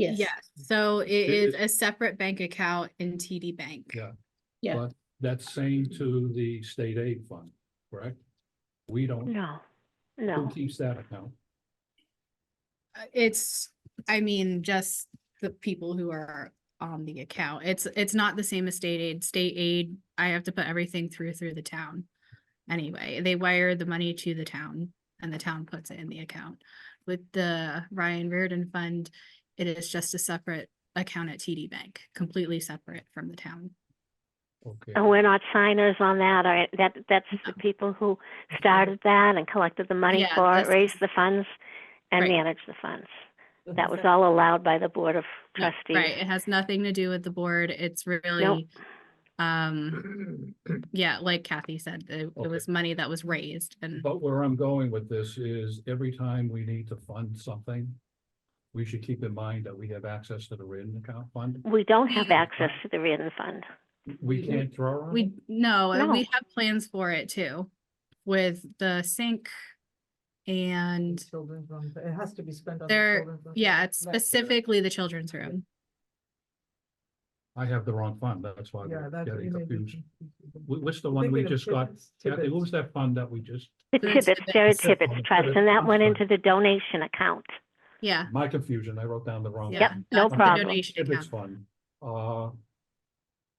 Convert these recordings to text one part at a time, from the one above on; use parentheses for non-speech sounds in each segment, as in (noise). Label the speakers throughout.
Speaker 1: Yes.
Speaker 2: Yes, so it
Speaker 3: It
Speaker 2: is a separate bank account in TD Bank.
Speaker 3: Yeah.
Speaker 1: Yeah.
Speaker 3: But That's same to the state aid fund, correct? We don't,
Speaker 4: No,
Speaker 3: who
Speaker 4: no.
Speaker 3: keeps that account?
Speaker 2: Uh, It's, I mean, just the people who are on the account. It's, it's not the same as state aid. State aid, I have to put everything through, through the town. Anyway, they wire the money to the town and the town puts it in the account. With the Ryan Reardon Fund, it is just a separate account at TD Bank, completely separate from the town.
Speaker 3: Okay,
Speaker 4: Oh, we're not signers on that, all right, that, that's the
Speaker 2: No.
Speaker 4: people who started that and collected the money
Speaker 2: Yeah,
Speaker 4: for it,
Speaker 2: that's-
Speaker 4: raised the funds, and
Speaker 2: Right.
Speaker 4: managed the funds. Oh, That was all allowed by the Board of
Speaker 2: Yeah, Right,
Speaker 4: Trustees.
Speaker 2: it has nothing to do with the board. It's really, um,
Speaker 3: (clears throat)
Speaker 2: yeah, like Kathy said, it, it
Speaker 3: Okay.
Speaker 2: was money that was raised and
Speaker 3: but where I'm going with this is every time we need to fund something, we should keep in mind that we have access to the written account fund.
Speaker 4: We don't have
Speaker 3: Yeah.
Speaker 4: access to the Reardon
Speaker 2: (laughs)
Speaker 4: Fund.
Speaker 3: We can't draw on
Speaker 2: we,
Speaker 3: it?
Speaker 2: no, and we
Speaker 4: No.
Speaker 2: have plans for it too. With the sink and,
Speaker 5: Children's room, but it has to be spent on. the
Speaker 2: There-
Speaker 5: children's room.
Speaker 2: yeah, it's
Speaker 5: That's it.
Speaker 2: specifically the children's room.
Speaker 3: I have the wrong fund, that's why
Speaker 5: Yeah,
Speaker 3: we're
Speaker 5: that's.
Speaker 3: getting
Speaker 5: you may be
Speaker 3: confused.
Speaker 5: confused.
Speaker 3: Wh- What's the
Speaker 5: I
Speaker 3: one
Speaker 5: think
Speaker 3: we
Speaker 5: have
Speaker 3: just got?
Speaker 5: Tibbetts-
Speaker 3: Kathy, what
Speaker 5: Tibbetts.
Speaker 3: was that fund that we just,
Speaker 4: The
Speaker 2: That's
Speaker 4: Tibbetts,
Speaker 2: Tibbetts.
Speaker 4: Sarah
Speaker 3: That's it, on
Speaker 4: Tibbetts
Speaker 3: the
Speaker 4: Trust, and that
Speaker 3: Tibbetts
Speaker 4: went
Speaker 3: Fund.
Speaker 4: into the donation account.
Speaker 2: Yeah.
Speaker 3: my confusion, I wrote down the wrong.
Speaker 2: yeah,
Speaker 4: Yep,
Speaker 3: fund.
Speaker 4: no
Speaker 2: that's the
Speaker 4: problem.
Speaker 2: donation
Speaker 3: Tibbetts
Speaker 2: account.
Speaker 3: fund. Uh,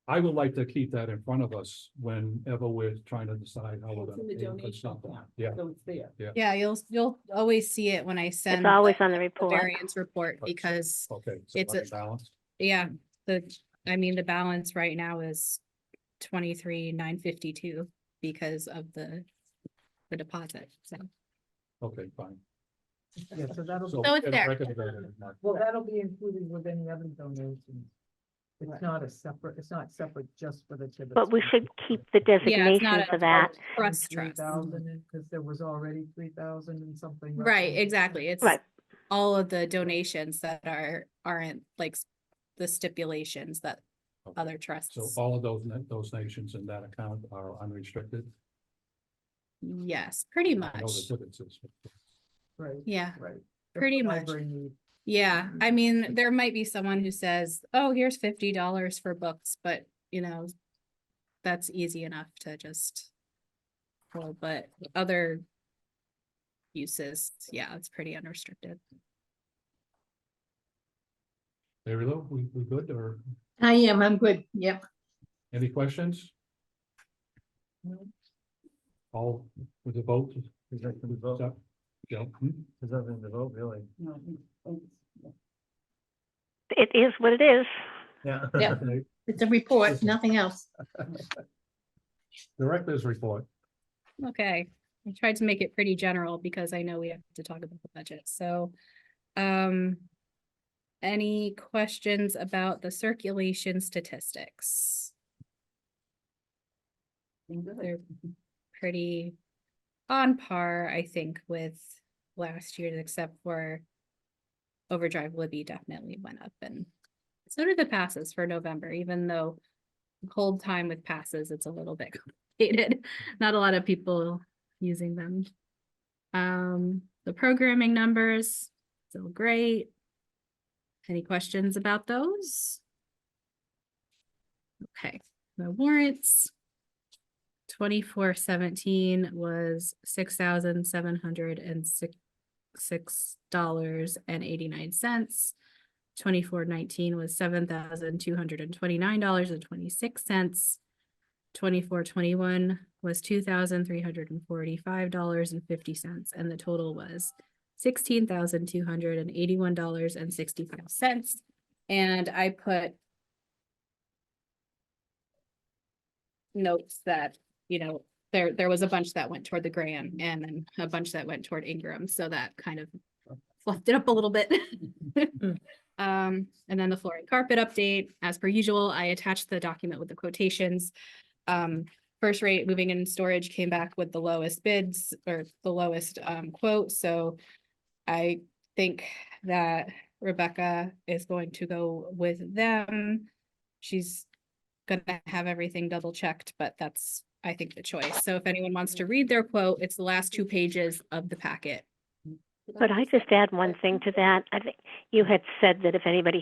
Speaker 3: I would like to keep that in front of us whenever we're trying to decide how we're
Speaker 5: It's
Speaker 3: gonna
Speaker 5: in the
Speaker 3: pay for
Speaker 5: donation
Speaker 3: something.
Speaker 5: fund.
Speaker 3: Yeah,
Speaker 5: So it's there.
Speaker 2: Yeah, you'll, you'll always see it when I
Speaker 4: It's
Speaker 2: send
Speaker 4: always
Speaker 2: the
Speaker 4: on the report.
Speaker 2: variance report
Speaker 3: Okay.
Speaker 2: because,
Speaker 3: okay.
Speaker 2: It's a-
Speaker 3: Balance.
Speaker 2: yeah, the, I mean, the balance right now is twenty-three, nine fifty-two because of the, the deposit, so.
Speaker 3: Okay, fine.
Speaker 5: Yeah, so that'll,
Speaker 3: So
Speaker 2: it's
Speaker 3: it's
Speaker 2: there.
Speaker 3: recommended, Mark.
Speaker 5: well, that'll be included with any other donations. It's not a separate, it's not separate just for the Tibbetts.
Speaker 4: But we should keep the
Speaker 2: Yeah, it's
Speaker 4: designation
Speaker 2: not a
Speaker 4: for that.
Speaker 2: Trust trust.
Speaker 5: Because there was already three thousand and something. left
Speaker 2: Right,
Speaker 5: over.
Speaker 2: exactly. It's
Speaker 4: Right,
Speaker 2: all of the donations that are, aren't like s- the stipulations that
Speaker 3: Okay.
Speaker 2: other trusts.
Speaker 3: So all of those, na- those nations in that account are unrestricted.
Speaker 2: Yes, pretty
Speaker 3: I know the
Speaker 2: much.
Speaker 3: Tibbetts is.
Speaker 5: Right,
Speaker 2: Yeah,
Speaker 5: right. The
Speaker 2: Pretty much.
Speaker 5: library need-
Speaker 2: yeah. I mean, there might be someone who says, oh, here's fifty dollars for books, but you know, that's easy enough to just. Well, but other uses, yeah, it's pretty unrestricted.
Speaker 3: Mary Lou, we, we good or
Speaker 1: I am, I'm good, yeah.
Speaker 3: any questions?
Speaker 5: No.
Speaker 3: All with the vote?
Speaker 6: Is that the vote?
Speaker 3: Is that- Joe? Hmm?
Speaker 6: There's nothing to vote, really.
Speaker 4: it is what it is.
Speaker 6: Yeah.
Speaker 1: Yeah. It's a report, nothing else.
Speaker 3: Director's report.
Speaker 2: Okay, I tried to make it pretty general because I know we have to talk about the budget, so, um. Any questions about the circulation statistics? They're pretty on par, I think, with last year's, except for. Overdrive Libby definitely went up and so did the passes for November, even though. Cold time with passes, it's a little bit complicated not a lot of people using them. Um, the programming numbers, still great. Any questions about those? Okay, the warrants. Twenty-four seventeen was six thousand seven hundred and six, six dollars and eighty-nine cents. Twenty-four nineteen was seven thousand two hundred and twenty-nine dollars and twenty-six cents. Twenty-four twenty-one was two thousand three hundred and forty-five dollars and fifty cents, and the total was sixteen thousand two hundred and eighty-one dollars and sixty-five cents. And I put notes that, you know, there, there was a bunch that went toward the Graham and then a bunch that went toward Ingram, so that kind of fluffed it up a little bit. (laughs) Um, and then the floor and carpet update, as per usual, I attached the document with the quotations. Um, first rate moving and storage came back with the lowest bids or the lowest um quote, so. I think that Rebecca is going to go with them. She's gonna have everything double checked, but that's, I think, the choice. So if anyone wants to read their quote, it's the last two pages of the packet.
Speaker 4: Could I just add one thing to that? I think you had said that if anybody